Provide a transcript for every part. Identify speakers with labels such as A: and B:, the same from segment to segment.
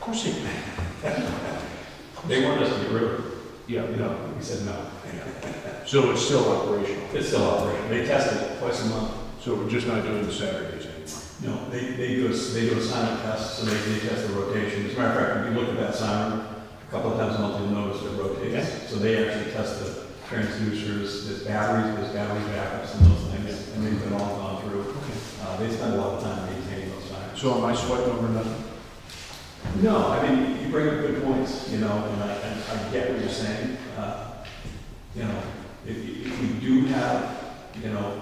A: pushing it.
B: They wanted us to get rid of it.
A: Yeah,
B: You know, we said no.
A: so it's still operational.
B: It's still operating. They tested it twice a month.
A: So we're just not doing the Saturdays anymore.
B: No, they, they do a, they do a sign test, so they, they test the rotation. As a matter of fact, if you look at that sign, a couple of times a month, you'll notice it rotates. So they actually test the transducers, there's batteries, there's battery backups and those things, and they've been all gone through. Uh, they spend a lot of time maintaining those signs.
A: So am I sweating over nothing?
B: No, I mean, you bring up good points, you know, and I, and I get what you're saying. Uh, You know, if, you- if we do have, you know,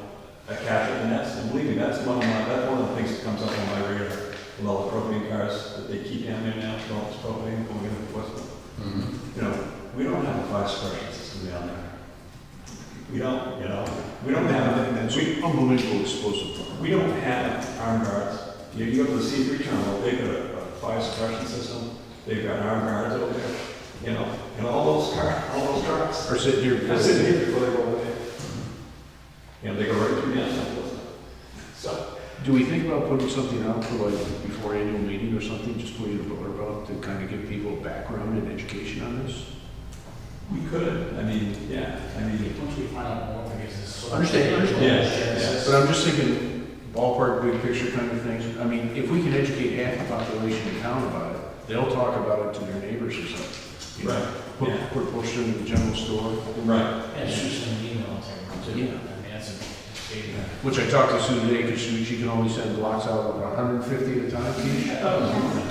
B: a catch, and that's, and believe me, that's one of my, that's one of the things that comes up on my radar with all the propane cars that they keep down there now, with all this propane going into Portsmouth. You know, we don't have a fire suppression system down there. We don't, you know, we don't have, anything that's-
A: That's
B: we,
A: unbelievable explosive.
B: we don't have armed guards. You you go to the C three terminal, they've got a a fire suppression system, they've got armed guards over there, you know, and all those car, all those trucks.
A: Or sitting here.
B: They're sitting here before they roll in. You know, they go right through downtown. Wilson. So,
A: Do we think about putting something out for like before annual meeting or something, just for you to blurb about to kind of give people background and education on this?
B: we could, I mean, yeah, I mean,
C: Once we find out more, I guess it's sort of.
A: Understand, understand.
B: Yes,
A: But I'm just thinking ballpark, big picture kind of things. I mean, if we can educate half the population in town about it, they'll talk about it to their neighbors or something. you know?
B: right,
A: Put,
B: Yeah.
A: put posters in the general store.
B: right,
C: And shoot some emails everyone too.
A: Yeah.
C: I mean, that's a big,
A: Which I talked to Sue today, because she, she can only send blocks out of about hundred and fifty at a time, each.
B: I thought it was morning,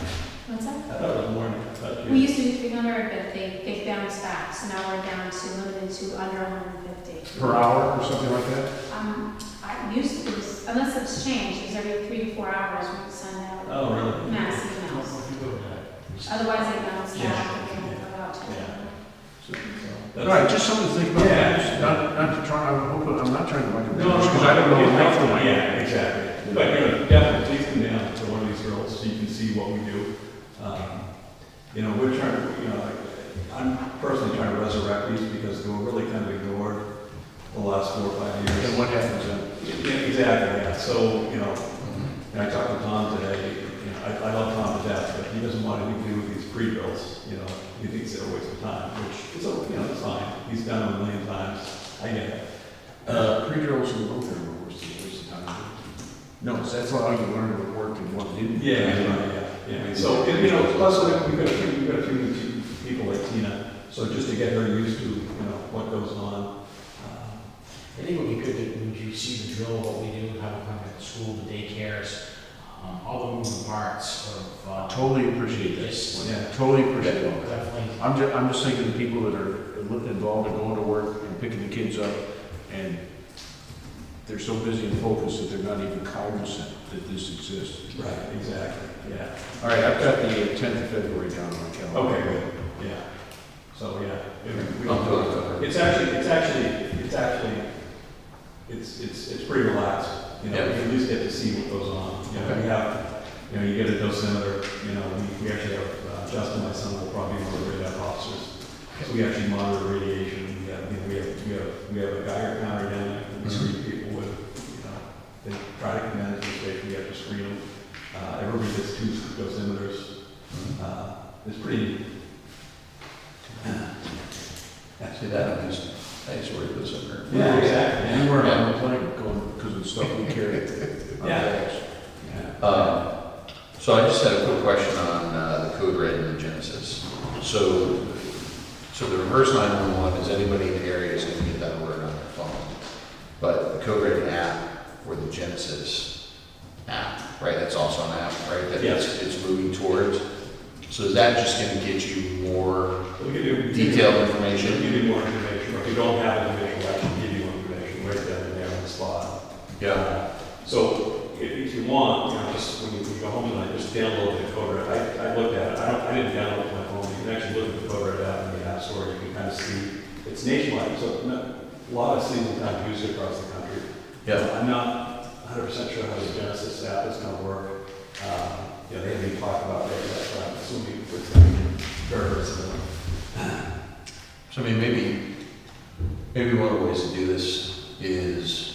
D: What's
B: I
D: that?
B: thought it was morning, I thought
D: We
B: you.
D: used to do three hundred, but they, they bounced back, so now we're down to limited to under hundred and fifty.
A: per hour or something like that?
D: Um, I used to, it was- unless it's changed, it was every three to four hours we would send out
B: Oh, really?
D: mass
C: uh,
D: emails.
C: if you go to that, it's-
D: Otherwise, they bounce
B: Yeah,
D: back,
B: sure,
D: you know,
B: yeah.
D: about two.
B: Yeah. So- so
A: All
B: that's-
A: right, just something to think about.
B: Yeah.
A: Just Not, not to try, I'm hoping, I'm not trying to like.
B: No,
A: Because I don't know
B: Yeah,
A: enough to like-
B: Yeah, exactly. But, you know, definitely, please come down to one of these girls so you can see what we do. Um, You know, we're trying, to, you know, like, I'm personally trying to resurrect these because they were really kind of ignored the last four or five
A: And
B: years.
A: what happens then?
B: Yeah, Exactly, yeah. So, you know, and I talked to Tom today, you know, I, I love Tom to death, but he doesn't want anything to do with these pre-bills, you know, he thinks they're a waste of time, which is, you know, it's fine. He's done them a million times. I get it. Uh,
A: Uh, pre-drills in the room, they're worse than waste of time. No, that's how you learn what worked and what didn't.
B: Yeah, yeah, yeah, yeah. So, and, you know, plus, I mean, we've got a few, we've got a few t- people like Tina, so just to get her used to, you know, what goes on. uh,
C: I think it would be good that when you see the drill, what we do, how we come at the school, the daycares, um, all the moving parts of, uh.
A: Totally appreciate
C: Yes.
A: that.
B: Yeah.
A: Totally appreciate that.
C: Definitely.
A: I'm ju, I'm just thinking the people that are involved in going to work and picking the kids up, and they're so busy and focused that they're not even cognizant that this exists.
B: Right, exactly, yeah.
A: All right, I've got the uh, tenth of February down on my calendar.
B: Okay, good, yeah. So, yeah. if we-
E: I'll do it.
B: It's actually, it's actually, it's actually, it's, it's, it's pretty relaxed, you know,
E: Yeah.
B: you at least get to see what goes on. You know, we have, you know, you get a dosimeter, you know, we, we actually have, uh, Justin, my son, will probably be one of the radar officers. So we actually monitor radiation, we have, you know, we have, we have, we have a Geiger counter down there, that we screen people with, you know, they try to come in as station, we have to screen them. Uh, everybody gets two dosimeters, uh, it's pretty.
E: See, that, I just, I just worry about something.
B: Yeah, exactly.
A: You weren't on the plane going, because of the stuff we carried. Uh, on
B: Yeah.
A: bags.
E: Um, So I just had a quick question on uh, the code red in the Genesis. So, so the reverse 911 is anybody in the area is gonna get that word on their phone. But the code red app or the Genesis app, right, that's also an app, right? that
B: Yes.
E: it's- It's moving towards. So is that just gonna get you more
B: We could do-
E: detailed
B: We should
E: information?
B: give you more information, or if you don't have information, I can give you information right down there on the spot. So if if you want, you know, just when you when you go home tonight, just download the code red. I, I looked at it, I don't, I didn't download it on my phone, you can actually look at the code red app in the app store, you can kind of see. It's nationwide, so no- a lot of cities and towns use it across the country.
E: Yeah,
B: I'm not hundred percent sure how the Genesis app is gonna work. Um, You know, they haven't even talked about that yet, but I'm assuming it's gonna be very similar.
E: So I mean, maybe, maybe one of the ways to do this is um,